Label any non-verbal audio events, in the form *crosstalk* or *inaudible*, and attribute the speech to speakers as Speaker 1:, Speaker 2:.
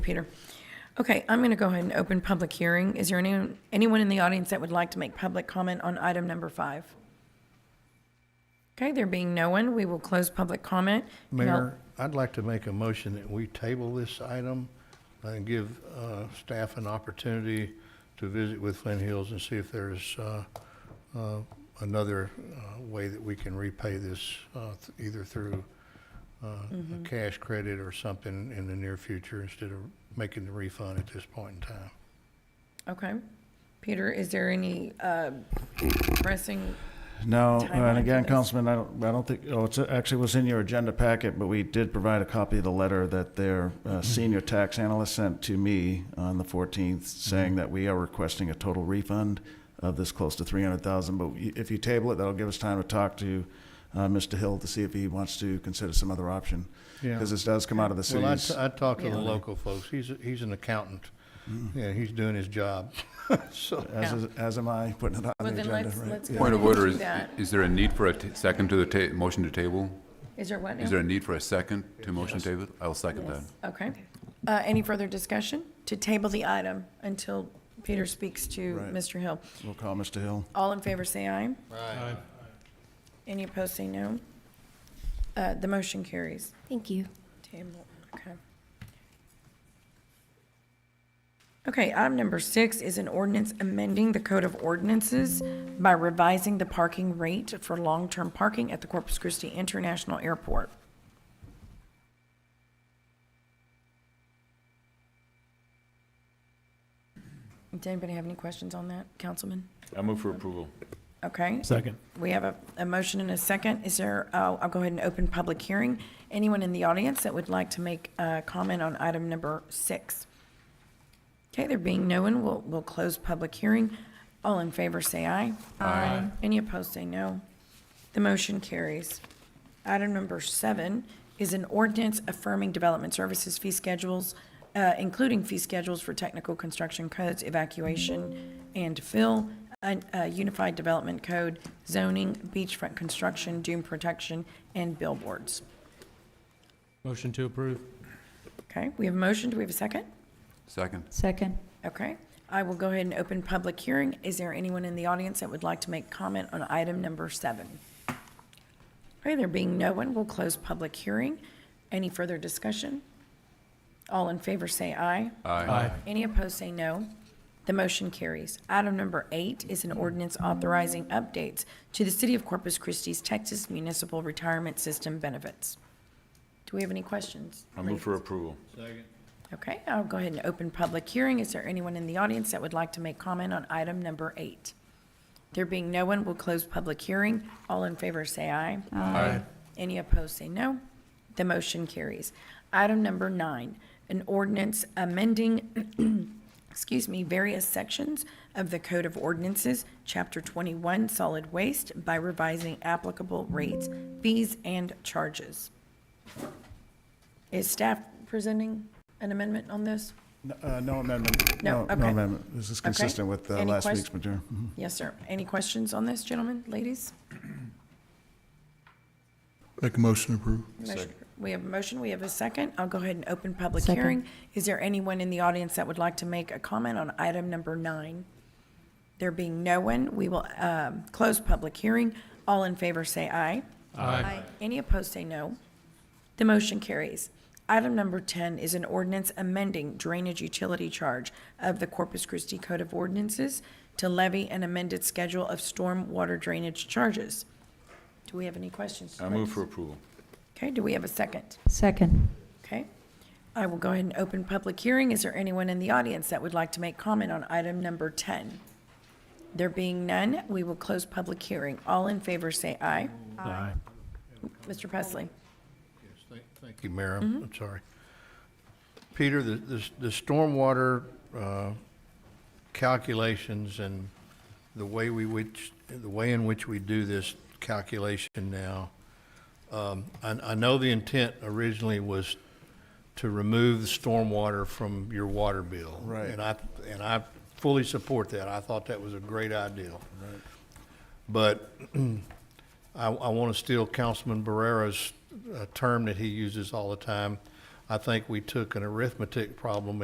Speaker 1: Peter. Okay, I'm going to go ahead and open public hearing. Is there anyone, anyone in the audience that would like to make public comment on item number five? Okay, there being no one, we will close public comment. Can I-
Speaker 2: Mayor, I'd like to make a motion that we table this item and give uh, staff an opportunity to visit with Flint Hills and see if there's uh, uh, another uh, way that we can repay this, uh, th- either through uh, a cash credit or something in the near future instead of making the refund at this point in time.
Speaker 1: Okay. Peter, is there any uh, pressing,
Speaker 3: No, uh,
Speaker 1: timeline
Speaker 3: and
Speaker 1: for
Speaker 3: again,
Speaker 1: this?
Speaker 3: Councilman, I don't, I don't think, oh, it's, actually was in your agenda packet, but we did provide a copy of the letter that their
Speaker 1: Mm-hmm.
Speaker 3: uh, senior tax analyst sent to me on the 14th,
Speaker 1: Mm-hmm.
Speaker 3: saying that we are requesting a total refund of this close to 300,000. But y- if you table it, that'll give us time to talk to uh, Mr. Hill to see if he wants to consider some other option.
Speaker 2: Yeah.
Speaker 3: Because this does come out of the
Speaker 2: Well, I,
Speaker 3: city's.
Speaker 2: t-
Speaker 1: uh,
Speaker 2: I talked to the
Speaker 1: Yeah.
Speaker 2: local folks. He's, a- he's an accountant. Yeah, he's doing his job. So,
Speaker 3: as, is- as am I, putting it on the
Speaker 1: well, then
Speaker 3: agenda, right?
Speaker 1: let's, let's
Speaker 3: Yeah.
Speaker 1: go
Speaker 4: Point
Speaker 1: ahead
Speaker 4: of order,
Speaker 1: and do
Speaker 4: is,
Speaker 1: that.
Speaker 4: is there a need for a t- second to the ta, motion to table?
Speaker 1: Is there what now?
Speaker 4: Is there a need for a second to motion table? I'll second that.
Speaker 1: Okay. Uh, Any further discussion? To table the item until Peter speaks to
Speaker 3: Right.
Speaker 1: Mr. Hill.
Speaker 3: We'll call Mr. Hill.
Speaker 1: All in favor, say aye. Aye. Any opposed, say no. Uh, The motion carries.
Speaker 5: Thank you.
Speaker 1: Table, okay. Okay, item number six is an ordinance amending the Code of Ordinances by revising the parking rate for long-term parking at the Corpus Christi International Airport. Does anybody have any questions on that, Councilman?
Speaker 6: I move for approval.
Speaker 1: Okay,
Speaker 7: Second.
Speaker 1: we have a, a motion and a second. Is there, I'll, I'll go ahead and open public hearing. Anyone in the audience that would like to make a comment on item number six? Okay, there being no one, we'll, we'll close public hearing. All in favor, say aye. Aye. Any opposed, say no. The motion carries. Item number seven is an ordinance affirming development services fee schedules, uh, including fee schedules for technical construction codes, evacuation and fill, an- a unified development code, zoning, beachfront construction, dune protection, and billboards.
Speaker 7: Motion to approve.
Speaker 1: Okay, we have a motion. Do we have a second?
Speaker 4: Second.
Speaker 8: Second.
Speaker 1: Okay, I will go ahead and open public hearing. Is there anyone in the audience that would like to make comment on item number seven? Okay, there being no one, we'll close public hearing. Any further discussion? All in favor say aye.
Speaker 4: Aye.
Speaker 1: Any opposed say no. The motion carries. Item number eight is an ordinance authorizing updates to the City of Corpus Christi's Texas Municipal Retirement System benefits. Do we have any questions?
Speaker 6: I move for approval.
Speaker 1: Okay, I'll go ahead and open public hearing. Is there anyone in the audience that would like to make comment on item number eight? There being no one, we'll close public hearing. All in favor, say aye.
Speaker 4: Aye.
Speaker 1: Any opposed, say no. The motion carries. Item number nine, an ordinance amending, *clears throat* excuse me, various sections of the Code of Ordinances, Chapter 21, Solid Waste, by revising applicable rates, fees, and charges. Is staff presenting an amendment on this?
Speaker 3: N- uh, No amendment.
Speaker 1: No,
Speaker 3: No
Speaker 1: okay.
Speaker 3: amendment. This is
Speaker 1: Okay.
Speaker 3: consistent with uh,
Speaker 1: Any
Speaker 3: last
Speaker 1: quest-
Speaker 3: week's material. Mhm.
Speaker 1: Yes, sir. Any questions on this, gentlemen, ladies?
Speaker 9: Make a motion to approve.
Speaker 1: Motion- We have a motion, we have a second. I'll go ahead and open public
Speaker 8: Second.
Speaker 1: hearing. Is there anyone in the audience that would like to make a comment on item number nine? There being no one, we will um, close public hearing. All in favor, say aye.
Speaker 7: Aye.
Speaker 1: Any opposed, say no. The motion carries. Item number 10 is an ordinance amending drainage utility charge of the Corpus Christi Code of Ordinances to levy an amended schedule of storm water drainage charges. Do we have any questions?
Speaker 6: I move
Speaker 1: please?
Speaker 6: for approval.
Speaker 1: Okay, do we have a second?
Speaker 8: Second.
Speaker 1: Okay. I will go ahead and open public hearing. Is there anyone in the audience that would like to make comment on item number 10? There being none, we will close public hearing. All in favor, say aye.
Speaker 7: Aye.
Speaker 1: Mr. Presley?
Speaker 2: Yes, thank- Thank you, Mayor. I'm I'm sorry. Peter, the, the the stormwater uh, calculations and the way we which, the way in which we do this calculation now, um, I, I know the intent originally was to remove the stormwater from your water bill.
Speaker 3: Right.
Speaker 2: And I, and I fully support that. I thought that was a great idea. Right. But *clears throat* I, I want to steal Councilman Barrera's uh, term that he uses all the time. I think we took an arithmetic problem